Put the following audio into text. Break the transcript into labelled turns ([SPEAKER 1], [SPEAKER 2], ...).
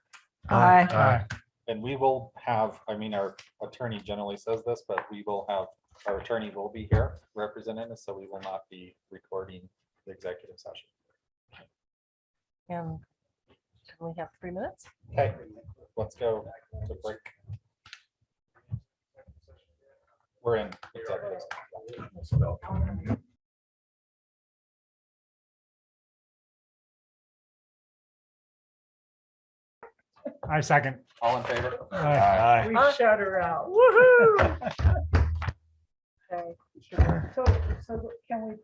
[SPEAKER 1] Aye.
[SPEAKER 2] Aye.
[SPEAKER 3] And we will have, I mean, our attorney generally says this, but we will have, our attorney will be here representing us, so we will not be recording the executive session.
[SPEAKER 1] And Um, we have three minutes?
[SPEAKER 3] Okay, let's go to break. We're in executive. session.
[SPEAKER 2] I second.
[SPEAKER 3] All in favor?
[SPEAKER 2] Aye.
[SPEAKER 4] We
[SPEAKER 1] Huh?
[SPEAKER 4] shut her out.
[SPEAKER 1] Woohoo! Okay.
[SPEAKER 4] So, so can we